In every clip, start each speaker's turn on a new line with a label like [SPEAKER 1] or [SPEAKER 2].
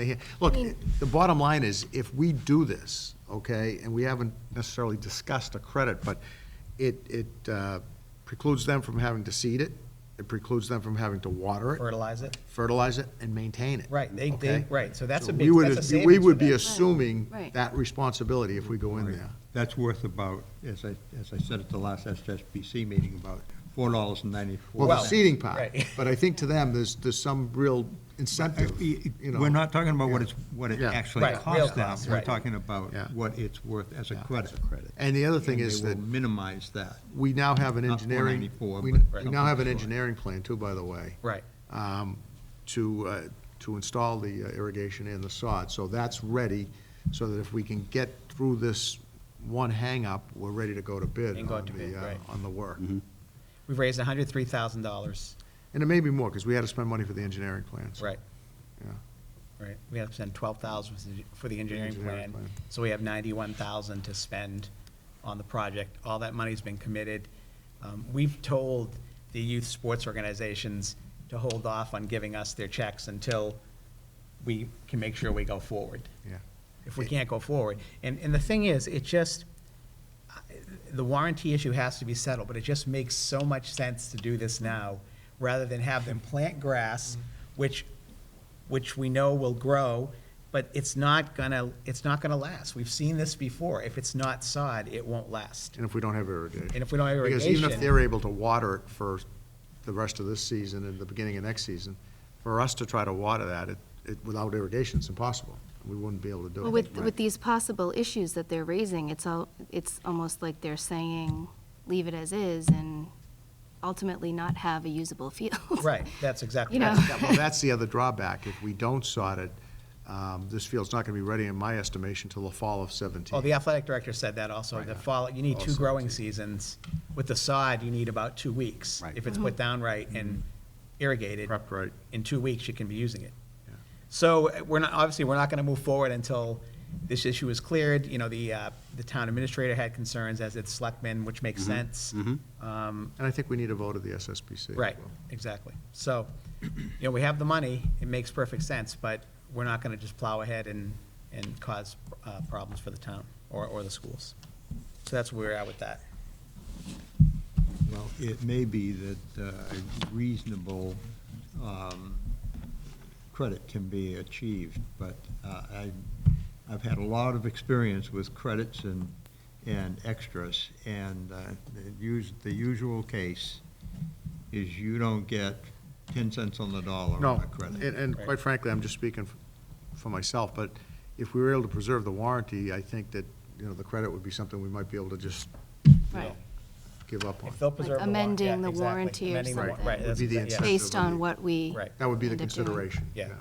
[SPEAKER 1] They hear- Look, the bottom line is, if we do this, okay, and we haven't necessarily discussed a credit, but it, it uh, precludes them from having to seed it, it precludes them from having to water it,
[SPEAKER 2] fertilize it.
[SPEAKER 1] fertilize it, and maintain it.
[SPEAKER 2] Right, they- they-
[SPEAKER 1] okay?
[SPEAKER 2] right, so that's a
[SPEAKER 1] we
[SPEAKER 2] big-
[SPEAKER 1] would-
[SPEAKER 2] that's a
[SPEAKER 1] We
[SPEAKER 2] savings
[SPEAKER 1] would
[SPEAKER 2] for
[SPEAKER 1] be
[SPEAKER 2] them.
[SPEAKER 1] assuming
[SPEAKER 3] Right.
[SPEAKER 1] that responsibility if we go in there.
[SPEAKER 4] That's worth about, as I, as I said at the last SSBC meeting, about four dollars and ninety-four.
[SPEAKER 1] Well, the
[SPEAKER 2] Well,
[SPEAKER 1] seeding part,
[SPEAKER 2] right.
[SPEAKER 1] but I think to them, there's, there's some real incentive, you know.
[SPEAKER 4] We're not talking about what it's, what it
[SPEAKER 1] Yeah.
[SPEAKER 4] actually
[SPEAKER 2] Right, real
[SPEAKER 4] costs them.
[SPEAKER 2] costs,
[SPEAKER 4] We're
[SPEAKER 2] right.
[SPEAKER 4] talking about
[SPEAKER 1] Yeah.
[SPEAKER 4] what it's worth as a
[SPEAKER 1] Yeah.
[SPEAKER 4] credit.
[SPEAKER 1] And the other thing is that.
[SPEAKER 4] And they will minimize that.
[SPEAKER 1] we now have an
[SPEAKER 4] Not
[SPEAKER 1] engineering,
[SPEAKER 4] 494,
[SPEAKER 1] we
[SPEAKER 4] but
[SPEAKER 1] we now have an
[SPEAKER 4] something
[SPEAKER 1] engineering plan too, by the way.
[SPEAKER 2] Right.
[SPEAKER 1] um, To, uh, to install the uh, irrigation and the sod. So that's ready, so that if we can get through this one hangup, we're ready to go to bid
[SPEAKER 2] And go
[SPEAKER 1] on
[SPEAKER 2] out to bid,
[SPEAKER 1] the, uh,
[SPEAKER 2] right.
[SPEAKER 1] on the work.
[SPEAKER 2] We've raised hundred three thousand dollars,
[SPEAKER 1] And it may be more, because we had to spend money for the engineering plans.
[SPEAKER 2] right,
[SPEAKER 1] Yeah.
[SPEAKER 2] right. We have to spend twelve thousand for the engineering
[SPEAKER 1] engineering
[SPEAKER 2] plan,
[SPEAKER 1] plan.
[SPEAKER 2] so we have ninety-one thousand to spend on the project. All that money's been committed. Um, we've told the youth sports organizations to hold off on giving us their checks until we can make sure we go forward.
[SPEAKER 1] Yeah.
[SPEAKER 2] if we can't go forward. And, and the thing is, it just, the warranty issue has to be settled, but it just makes so much sense to do this now, rather than have them plant grass, which, which we know will grow, but it's not gonna, it's not gonna last. We've seen this before. If it's not sod, it won't last.
[SPEAKER 1] And if we don't have irrigation.
[SPEAKER 2] And if we don't have
[SPEAKER 1] Because even if
[SPEAKER 2] irrigation-
[SPEAKER 1] they're able to water it for the rest of this season and the beginning of next season, for us to try to water that, it, it, without irrigation, it's impossible. We wouldn't be able to do it.
[SPEAKER 3] Well, with, with these possible issues that they're raising, it's all, it's almost like they're saying, leave it as is and ultimately not have a usable field.
[SPEAKER 2] Right, that's exactly.
[SPEAKER 3] You know.
[SPEAKER 2] that's-
[SPEAKER 1] Well, that's the other drawback. If we don't sod it, um, this field's not going to be ready, in my estimation, till the fall of
[SPEAKER 2] Oh, the
[SPEAKER 1] seventeen.
[SPEAKER 2] athletic director said that also,
[SPEAKER 1] Right. Oh,
[SPEAKER 2] the fall, you need two
[SPEAKER 1] Also,
[SPEAKER 2] growing
[SPEAKER 1] too.
[SPEAKER 2] seasons. With the sod, you need about two weeks.
[SPEAKER 1] Right.
[SPEAKER 2] If it's put down right and irrigated.
[SPEAKER 1] Prepped right.
[SPEAKER 2] In two weeks, you can be using it.
[SPEAKER 1] Yeah.
[SPEAKER 2] So uh, we're not, obviously, we're not going to move forward until this issue is cleared. You know, the, uh, the town administrator had concerns as its selectmen, which makes
[SPEAKER 1] Mm-hmm.
[SPEAKER 2] sense. Um,
[SPEAKER 1] And I think we need a vote of the SSBC. as
[SPEAKER 2] Right,
[SPEAKER 1] well.
[SPEAKER 2] exactly. So, you know, we have the money, it makes perfect sense, but we're not going to just plow ahead and, and cause uh, problems for the town or, or the schools. So that's where we're at with that.
[SPEAKER 4] Well, it may be that uh, a reasonable um, credit can be achieved, but uh, I, I've had a lot of experience with credits and, and extras, and uh, the us- the usual case is you don't get 10 cents on the dollar
[SPEAKER 1] No,
[SPEAKER 4] on a credit.
[SPEAKER 1] and, and
[SPEAKER 2] Right.
[SPEAKER 1] quite frankly, I'm just speaking f- for myself, but if we were able to preserve the warranty, I think that, you know, the credit would be something we might be able to just
[SPEAKER 3] Right.
[SPEAKER 1] give up on.
[SPEAKER 2] If they'll preserve the warrant.
[SPEAKER 3] amending
[SPEAKER 2] yeah,
[SPEAKER 3] the
[SPEAKER 2] exactly.
[SPEAKER 3] warranty or
[SPEAKER 2] Amending the wa-
[SPEAKER 3] something.
[SPEAKER 2] Right.
[SPEAKER 1] Would be the
[SPEAKER 2] that's- yeah.
[SPEAKER 1] incentive.
[SPEAKER 3] Based on what we.
[SPEAKER 2] Right.
[SPEAKER 1] That would be the
[SPEAKER 3] end up doing.
[SPEAKER 1] consideration.
[SPEAKER 2] Yeah.
[SPEAKER 1] Yeah,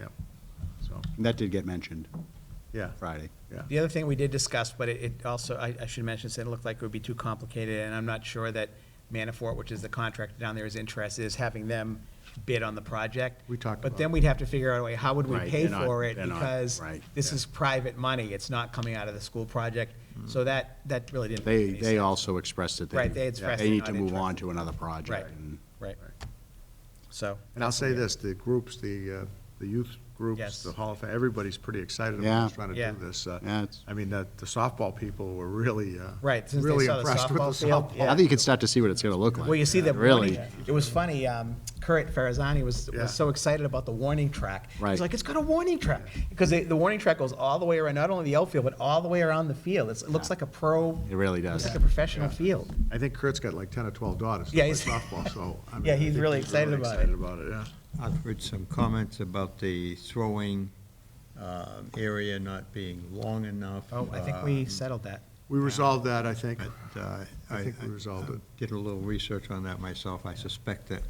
[SPEAKER 1] yeah. so,
[SPEAKER 5] That did get mentioned
[SPEAKER 1] yeah,
[SPEAKER 5] Friday.
[SPEAKER 1] yeah.
[SPEAKER 2] The other thing we did discuss, but it- it also, I, I should mention, said it looked like it would be too complicated, and I'm not sure that Manafort, which is the contractor down there, is interested, is having them bid on the project.
[SPEAKER 1] We talked
[SPEAKER 2] But
[SPEAKER 1] about
[SPEAKER 2] then
[SPEAKER 1] it.
[SPEAKER 2] we'd have to figure out a way, how would we
[SPEAKER 5] Right,
[SPEAKER 2] pay
[SPEAKER 5] they're not-
[SPEAKER 2] for it?
[SPEAKER 5] they're not,
[SPEAKER 2] Because
[SPEAKER 5] right,
[SPEAKER 2] this
[SPEAKER 5] yeah.
[SPEAKER 2] is private money, it's not coming out of the school project, so that, that really didn't make
[SPEAKER 5] They,
[SPEAKER 2] any sense.
[SPEAKER 5] they also expressed that they.
[SPEAKER 2] Right, they expressed
[SPEAKER 5] They
[SPEAKER 2] they're
[SPEAKER 5] need
[SPEAKER 2] not
[SPEAKER 5] to move on
[SPEAKER 2] interested.
[SPEAKER 5] to another project.
[SPEAKER 2] Right,
[SPEAKER 5] and-
[SPEAKER 2] right. So.
[SPEAKER 1] And I'll say this, the groups, the, uh, the youth groups,
[SPEAKER 2] Yes.
[SPEAKER 1] the Hall of Fame, everybody's pretty excited
[SPEAKER 5] Yeah.
[SPEAKER 1] about us trying to
[SPEAKER 2] Yeah.
[SPEAKER 1] do this. Uh,
[SPEAKER 5] Yeah, it's-
[SPEAKER 1] I mean, the the softball people were really, uh,
[SPEAKER 2] Right, since they
[SPEAKER 1] really
[SPEAKER 2] saw the
[SPEAKER 1] impressed with the
[SPEAKER 2] softball field,
[SPEAKER 1] softball.
[SPEAKER 2] yeah.
[SPEAKER 5] I think you can start to see what it's gonna look like.
[SPEAKER 2] Well, you see
[SPEAKER 1] uh,
[SPEAKER 5] that
[SPEAKER 2] that
[SPEAKER 5] Really.
[SPEAKER 2] It was funny. Um, Kurt Farazani was,
[SPEAKER 1] Yeah.
[SPEAKER 2] was so excited about the warning track.
[SPEAKER 5] Right.
[SPEAKER 2] He's like, it's got a warning track because the warning track goes all the way around, not only the outfield but all the way around the field. It's, it looks
[SPEAKER 5] Yeah.
[SPEAKER 2] like a pro.
[SPEAKER 5] It really does.
[SPEAKER 2] It's like a professional field.
[SPEAKER 1] I think Kurt's got like 10 or 12 daughters that
[SPEAKER 2] Yeah,
[SPEAKER 1] play
[SPEAKER 2] he's-
[SPEAKER 1] softball, so. I mean,
[SPEAKER 2] Yeah,
[SPEAKER 1] I
[SPEAKER 2] he's
[SPEAKER 1] think
[SPEAKER 2] really excited about it.
[SPEAKER 1] Excited about it, yeah.
[SPEAKER 4] I've heard some comments about the throwing um, area not being long enough.
[SPEAKER 2] Oh, I think we
[SPEAKER 4] um,
[SPEAKER 2] settled that.
[SPEAKER 1] We resolved that, I think.
[SPEAKER 4] But uh,
[SPEAKER 1] I
[SPEAKER 4] I
[SPEAKER 1] think we resolved
[SPEAKER 4] I
[SPEAKER 1] it.
[SPEAKER 4] Did a little research on that myself. I suspect that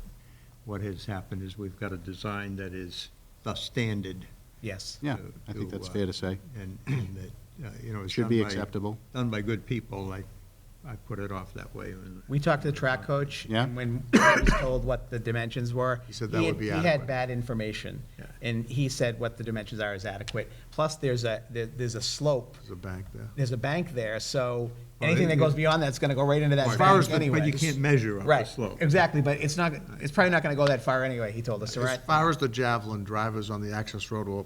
[SPEAKER 4] what has happened is we've got a design that is the standard.
[SPEAKER 2] Yes.
[SPEAKER 5] Yeah,
[SPEAKER 4] to-
[SPEAKER 5] I think that's
[SPEAKER 4] uh,
[SPEAKER 5] fair to say.
[SPEAKER 4] And, and that, uh, you know, it's
[SPEAKER 5] Should
[SPEAKER 4] done
[SPEAKER 5] be
[SPEAKER 4] by-
[SPEAKER 5] acceptable.
[SPEAKER 4] Done by good people, I, I put it off that way. and-
[SPEAKER 2] We talked to the track coach.
[SPEAKER 5] Yeah.
[SPEAKER 2] And when he was told what the dimensions were.
[SPEAKER 1] He said that
[SPEAKER 2] had-
[SPEAKER 1] would be
[SPEAKER 2] He had
[SPEAKER 1] adequate.
[SPEAKER 2] bad information.
[SPEAKER 4] Yeah.
[SPEAKER 2] And he said what the dimensions are is adequate. Plus, there's a, there- there's a slope.
[SPEAKER 1] There's a bank there.
[SPEAKER 2] There's a bank there, so
[SPEAKER 4] Well,
[SPEAKER 2] anything that
[SPEAKER 4] it-
[SPEAKER 2] goes beyond that's gonna go right into that
[SPEAKER 4] As far
[SPEAKER 2] bank
[SPEAKER 4] as the-
[SPEAKER 2] anyway.
[SPEAKER 4] But you can't measure up the
[SPEAKER 2] Right,
[SPEAKER 4] slope.
[SPEAKER 2] exactly, but it's not, it's probably not gonna go that far anyway, he told us,
[SPEAKER 1] As
[SPEAKER 2] right?
[SPEAKER 1] far as the javelin drivers on the access road will